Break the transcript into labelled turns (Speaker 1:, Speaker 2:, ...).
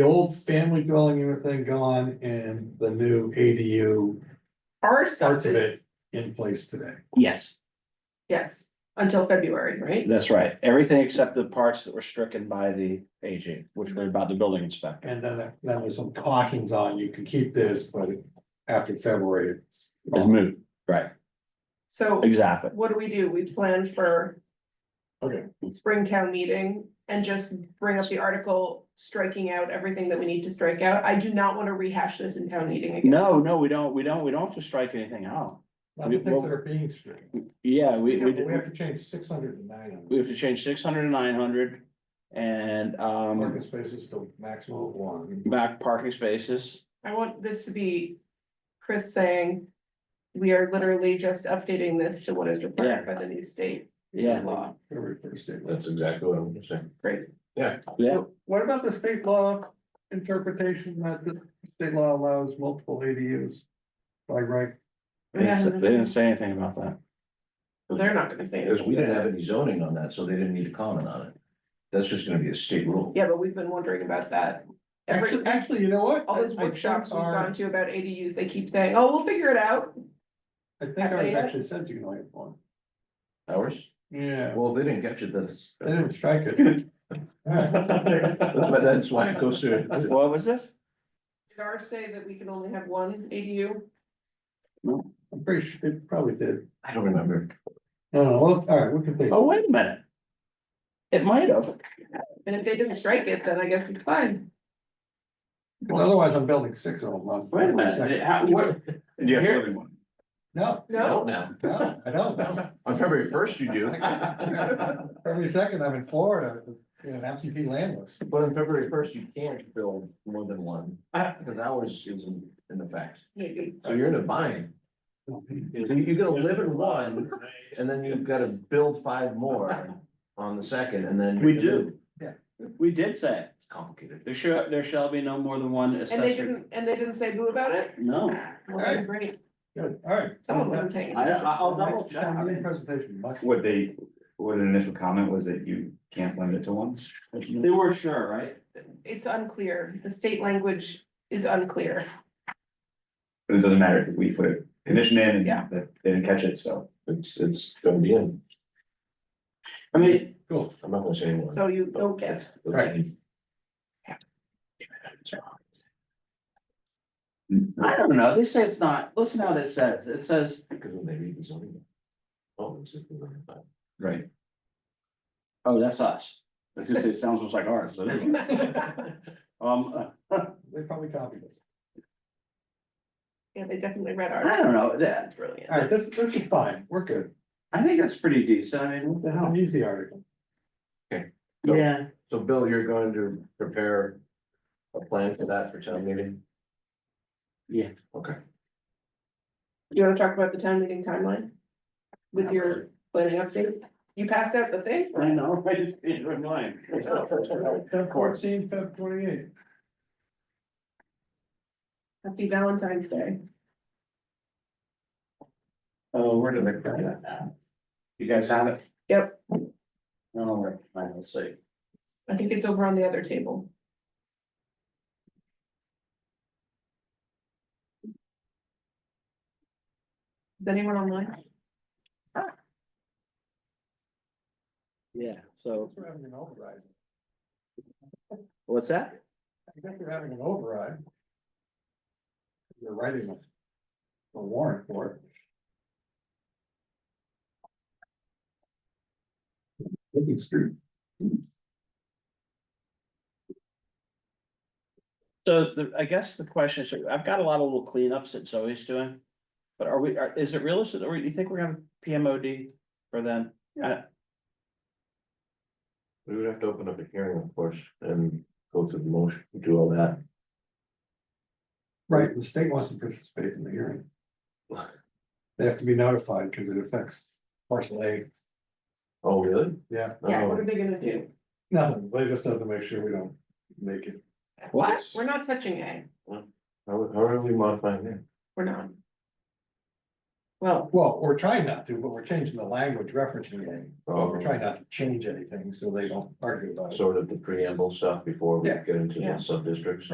Speaker 1: the old family dwelling unit thing gone and the new ADU
Speaker 2: Our stuff
Speaker 1: parts of
Speaker 2: is,
Speaker 1: it in place today.
Speaker 3: Yes,
Speaker 2: yes, until February, right?
Speaker 3: that's right. Everything except the parts that were stricken by the AG, which were about the building inspector.
Speaker 1: And then, there- then there's some cautions on, you can keep this, but after February, it's.
Speaker 3: It's moot, right,
Speaker 2: So
Speaker 3: exactly.
Speaker 2: what do we do? We plan for
Speaker 1: Okay.
Speaker 2: spring town meeting and just bring up the article, striking out everything that we need to strike out. I do not want to rehash this in town meeting again.
Speaker 3: No, no, we don't, we don't, we don't have to strike anything out.
Speaker 1: Not the things that are being stricken.
Speaker 3: Yeah, we,
Speaker 1: We
Speaker 3: we,
Speaker 1: have to change six hundred and nine
Speaker 3: we
Speaker 1: on
Speaker 3: have to change six hundred and nine hundred and, um,
Speaker 1: parking spaces to maximum of one.
Speaker 3: back parking spaces.
Speaker 2: I want this to be Chris saying, we are literally just updating this to what is required by the new state
Speaker 3: Yeah,
Speaker 2: law.
Speaker 1: Every first day.
Speaker 4: That's exactly what I'm saying.
Speaker 3: yeah,
Speaker 1: What about the state law interpretation that the state law allows multiple ADUs by right?
Speaker 3: they didn't say- they didn't say anything about that.
Speaker 2: They're not gonna say
Speaker 4: Because
Speaker 2: anything.
Speaker 4: we didn't have any zoning on that, so they didn't need to comment on it. That's just gonna be a state rule.
Speaker 2: Yeah, but we've been wondering about that. Every,
Speaker 1: Actually, actually, you know what?
Speaker 2: all those
Speaker 1: I- I think
Speaker 2: workshops we've
Speaker 1: our-
Speaker 2: gone to about ADUs, they keep saying, oh, we'll figure it out.
Speaker 1: I think
Speaker 2: Have
Speaker 1: ours
Speaker 2: they yet?
Speaker 1: actually said you can only have one.
Speaker 4: Ours?
Speaker 1: Yeah.
Speaker 4: Well, they didn't get you this.
Speaker 1: They didn't strike it.
Speaker 4: That's why, that's why it goes through.
Speaker 3: What was this?
Speaker 2: Did ours say that we can only have one ADU?
Speaker 1: I'm pretty sure, it probably did.
Speaker 4: I don't remember.
Speaker 1: No, no, well, all right, we can think.
Speaker 3: Oh, wait a minute. It might have.
Speaker 2: And if they didn't strike it, then I guess it's fine.
Speaker 1: Otherwise, I'm building six of them. on-
Speaker 3: Wait a minute, how, what? Here-
Speaker 1: No,
Speaker 2: No,
Speaker 4: Now,
Speaker 1: no, I don't.
Speaker 4: on February first you do.
Speaker 1: Every second I'm in Florida, in an absentee landless.
Speaker 4: But on February first, you can't build more than one, because ours isn't in the facts. So you're in a bind. You- You're gonna live in one, and then you've gotta build five more on the second, and then.
Speaker 3: We do.
Speaker 1: Yeah.
Speaker 3: We did say,
Speaker 4: It's complicated.
Speaker 3: there shall, there shall be no more than one
Speaker 2: and they
Speaker 3: accessory.
Speaker 2: didn't, and they didn't say boo about it?
Speaker 3: No,
Speaker 2: Well, then great,
Speaker 1: Good, all right.
Speaker 2: someone wasn't taking.
Speaker 3: I,
Speaker 2: it.
Speaker 3: I'll double
Speaker 1: Next
Speaker 3: check.
Speaker 1: time, your Presentation. much-
Speaker 5: What they, what an initial comment was that you can't limit it to one.
Speaker 3: They were sure, right?
Speaker 2: It's unclear. The state language is unclear.
Speaker 5: But it doesn't matter because we put a condition in and
Speaker 2: Yeah.
Speaker 5: that they didn't catch it, so.
Speaker 4: It's, it's gonna be in,
Speaker 3: I mean,
Speaker 1: Cool.
Speaker 4: I'm not gonna say anyone.
Speaker 2: So you don't get,
Speaker 1: Right.
Speaker 3: I don't know, they say it's not, listen how this says, it says,
Speaker 4: Because when they read the zoning. Oh, this is the zoning. bylaw.
Speaker 5: Right.
Speaker 3: oh, that's us. I was gonna say, it sounds just like ours, but anyway. um,
Speaker 1: They probably copied us.
Speaker 2: yeah, they definitely read
Speaker 3: I
Speaker 2: our.
Speaker 3: don't know, that,
Speaker 1: All
Speaker 2: Brilliant.
Speaker 1: right, this, this is fine, we're good.
Speaker 3: I think that's pretty decent, I mean, what the
Speaker 1: It's
Speaker 3: hell?
Speaker 1: an easy article.
Speaker 3: Yeah,
Speaker 4: So Bill, you're going to prepare a plan for that for town meeting?
Speaker 3: Yeah.
Speaker 4: Okay.
Speaker 2: You wanna talk about the town meeting timeline? With your planning update? You passed out the thing?
Speaker 3: I know, I just, it reminded.
Speaker 1: Of
Speaker 3: course.
Speaker 1: Fourteen, Feb twenty-eight.
Speaker 2: Happy Valentine's Day.
Speaker 3: Oh, where did I put that? now? You guys have it?
Speaker 2: Yep.
Speaker 3: No, wait, all right, let's see.
Speaker 2: I think it's over on the other table. Is anyone online?
Speaker 3: Yeah, so,
Speaker 1: We're having an override.
Speaker 3: what's that?
Speaker 1: I think you're having an override. You're writing a a warrant for it. Looking street.
Speaker 3: So the, I guess the question is, I've got a lot of little cleanups that Zoe's doing. But are we, are, is it realistic, or you think we're gonna PMOD for them?
Speaker 4: We would have to open up a hearing, of course, and go through the motion, do all that.
Speaker 1: Right, the state wants to participate in the hearing. They have to be notified because it affects parcel A.
Speaker 4: Oh, really?
Speaker 1: Yeah,
Speaker 2: Yeah, what
Speaker 4: Oh,
Speaker 2: are they gonna do?
Speaker 1: nothing. They just have to make sure we don't make it.
Speaker 3: What?
Speaker 2: We're not touching A,
Speaker 4: How, how are we modifying it?
Speaker 2: we're not. Well,
Speaker 1: Well, we're trying not to, but we're changing the language referencing it, but we're
Speaker 4: So
Speaker 1: trying not to change anything, so they don't argue about it.
Speaker 4: Sort of the preamble stuff before we
Speaker 1: Yeah.
Speaker 4: get into
Speaker 6: Yeah.
Speaker 4: the sub districts.